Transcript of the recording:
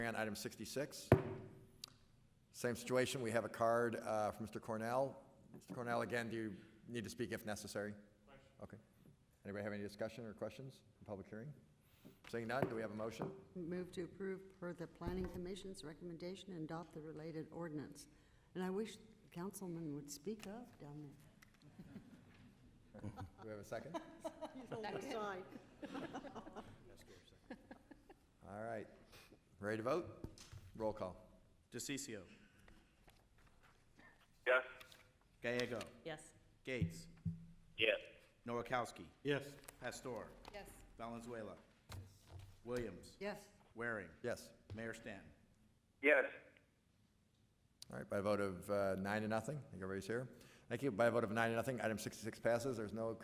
and item 66. Same situation, we have a card uh, from Mr. Cornell. Mr. Cornell, again, do you need to speak if necessary? Okay. Anybody have any discussion or questions in public hearing? Seeing none, do we have a motion? Move to approve per the planning commission's recommendation and adopt the related ordinance. And I wish councilman would speak up down there. Do we have a second? He's on the side. All right. Ready to vote? Roll call. DeCiccio. Yes. Gallego. Yes. Gates. Yes. Noakowski. yes, Pastor. Yes. Valenzuela. Williams. Yes, Waring. Yes. Mayor Stanton. Yes. All right, by a vote of uh, nine to nothing, I think everybody's here. Thank you. By a vote of nine to nothing, item 66 passes. There's no